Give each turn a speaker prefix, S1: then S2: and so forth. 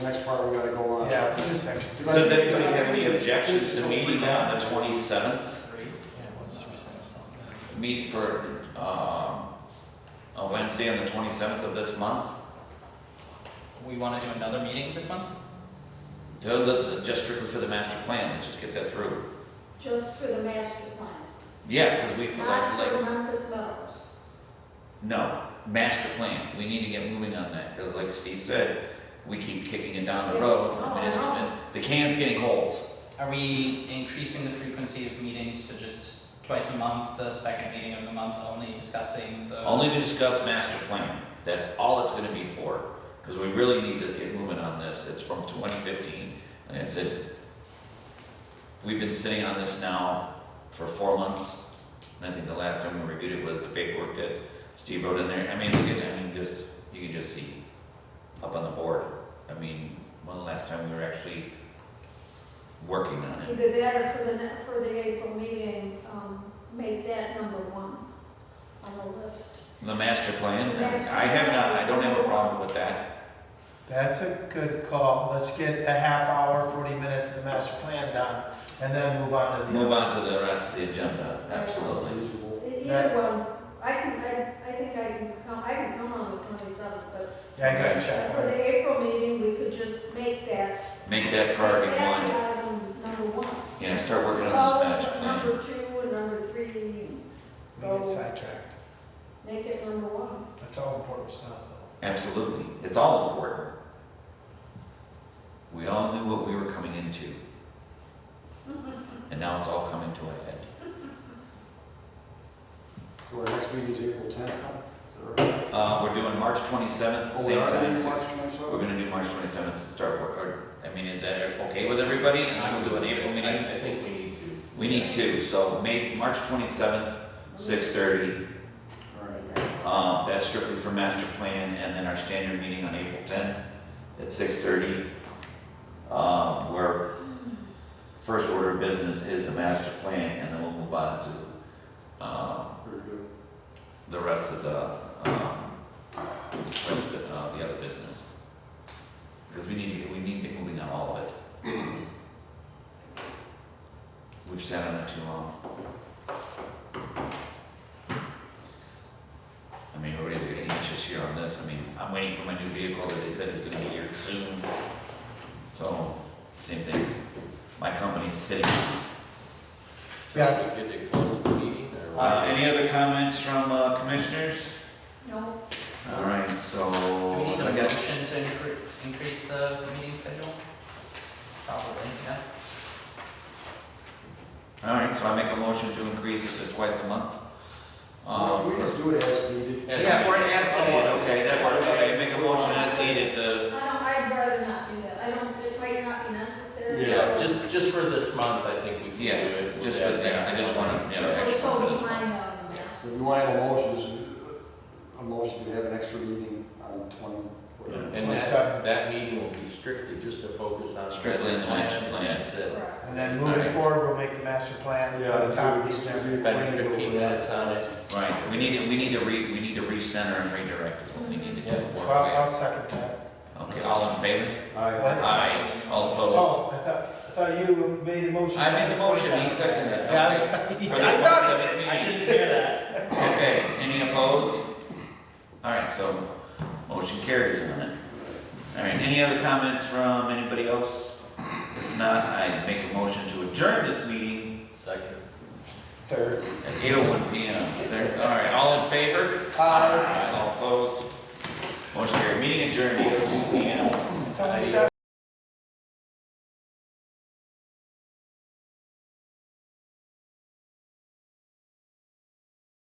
S1: Next part we gotta go on.
S2: Yeah, this section.
S3: Does anybody have any objections to meeting on the twenty-seventh?
S2: Yeah, what's three seven?
S3: Meet for, um, a Wednesday on the twenty-seventh of this month?
S4: We want to do another meeting this month?
S3: So let's, uh, just strictly for the master plan, let's just get that through.
S5: Just for the master plan,
S3: Yeah, because we, feel like,
S5: not for
S3: like,
S5: Memphis Meadows.
S3: no, master plan, we need to get moving on that, because like Steve said, we keep kicking it down the road, and it's, and the can's getting holes.
S4: Are we increasing the frequency of meetings to just twice a month, the second meeting of the month only discussing the?
S3: Only to discuss master plan, that's all it's gonna be for, because we really need to get moving on this, it's from twenty fifteen, and it's it. We've been sitting on this now for four months, and I think the last time we reviewed it was the paperwork that Steve wrote in there, I mean, look at, I mean, just, you can just see up on the board, I mean, when the last time we were actually working on it,
S5: Either that or for the, ne- for the April meeting, um, make that number one on the list.
S3: the master plan, I have not, I don't have a problem with that,
S2: That's a good call. Let's get a half hour, forty minutes of the master plan done, and then move on to the.
S3: move on to the rest of the agenda, absolutely.
S1: Reasonable.
S5: E-
S2: That-
S5: Either one, I can, I, I think I can come, I can come on the twenty-seventh, but
S2: Yeah, I gotta check.
S5: for the April meeting, we could just make that.
S3: Make that priority
S5: make
S3: one,
S5: that item number one.
S3: yeah, start working on
S5: Follow
S3: this master plan.
S5: Number two and number three, meeting.
S2: We get
S5: so
S2: sidetracked.
S5: make it number one.
S2: That's all important stuff, though.
S3: Absolutely, it's all important. We all knew what we were coming into. And now it's all coming to a head.
S1: So our next meeting is April tenth, is that right?
S3: Uh, we're doing March twenty-seventh,
S1: Oh, we
S3: same
S1: are
S3: time,
S1: doing
S3: six-
S1: March
S3: we're
S1: 27th?
S3: gonna do March twenty-seventh to start work, or, I mean, is that okay with everybody? And then we'll do an April meeting.
S6: I think we need to.
S3: We need two, so make March twenty-seventh, six thirty,
S1: All right.
S3: um, that's strictly for master plan, and then our standard meeting on April tenth at six thirty. Um, where first order of business is the master plan, and then we'll move on to, um,
S1: Very good.
S3: the rest of the, um, rest of the, uh, the other business. Because we need to get, we need to get moving on all of it. We've sat on it too long. I mean, everybody's getting anxious here on this, I mean, I'm waiting for my new vehicle that they said is gonna be here soon. So, same thing, my company's sitting.
S2: Yeah.
S6: Did they close the meeting or?
S3: Uh, any other comments from, uh, commissioners?
S5: No,
S3: All right, so.
S4: Do we need a
S3: I guess-
S4: motion to incre- increase the meeting schedule? Probably, yeah.
S3: All right, so I make a motion to increase it to twice a month.
S1: Well, We
S3: Um,
S1: just do it as needed.
S6: As-
S3: Yeah, we're asking it, okay, that works, okay, make a motion as needed
S5: I
S3: to,
S5: don't, I'd rather not do that, I don't, it might not be necessary.
S6: Yeah, just, just for this month, I think we can do
S3: Yeah,
S6: it. with
S3: just
S6: that.
S3: for- yeah, I just wanna- yeah.
S5: So we
S3: extra for
S5: go
S3: this one.
S5: behind on
S1: So if you want to have a motion, just a motion to have an extra meeting on twenty. whatever.
S6: And that, that meeting will be strictly just to focus on.
S3: Strictly on the master plan.
S6: That's
S5: that.
S6: it.
S5: Correct.
S2: And then moving
S3: Alright.
S2: forward, we'll make the master plan. by the time we get there.
S6: Spend fifteen minutes on it.
S3: right, we need to, we need to re, we need to recenter and redirect is what we need to do.
S6: Yeah,
S2: So I'll, I'll second that.
S3: Okay, all in favor?
S1: Aye.
S3: Aye, all opposed?
S2: Oh, I thought, I thought you made the motion.
S3: I made the motion, he seconded it.
S2: Oh, Yeah, I was-
S3: For the
S2: I thought,
S3: 27th meeting.
S2: I didn't hear that.
S3: Okay, any opposed? All right, so motion carries on it. All right, any other comments from anybody else? If not, I make a motion to adjourn this meeting
S6: Second.
S2: Third.
S3: at eight oh one P M. There, all right, all in favor?
S2: Aye.
S3: All opposed? Motion carried, meeting adjourned, eight oh two P M.
S2: It's only seven.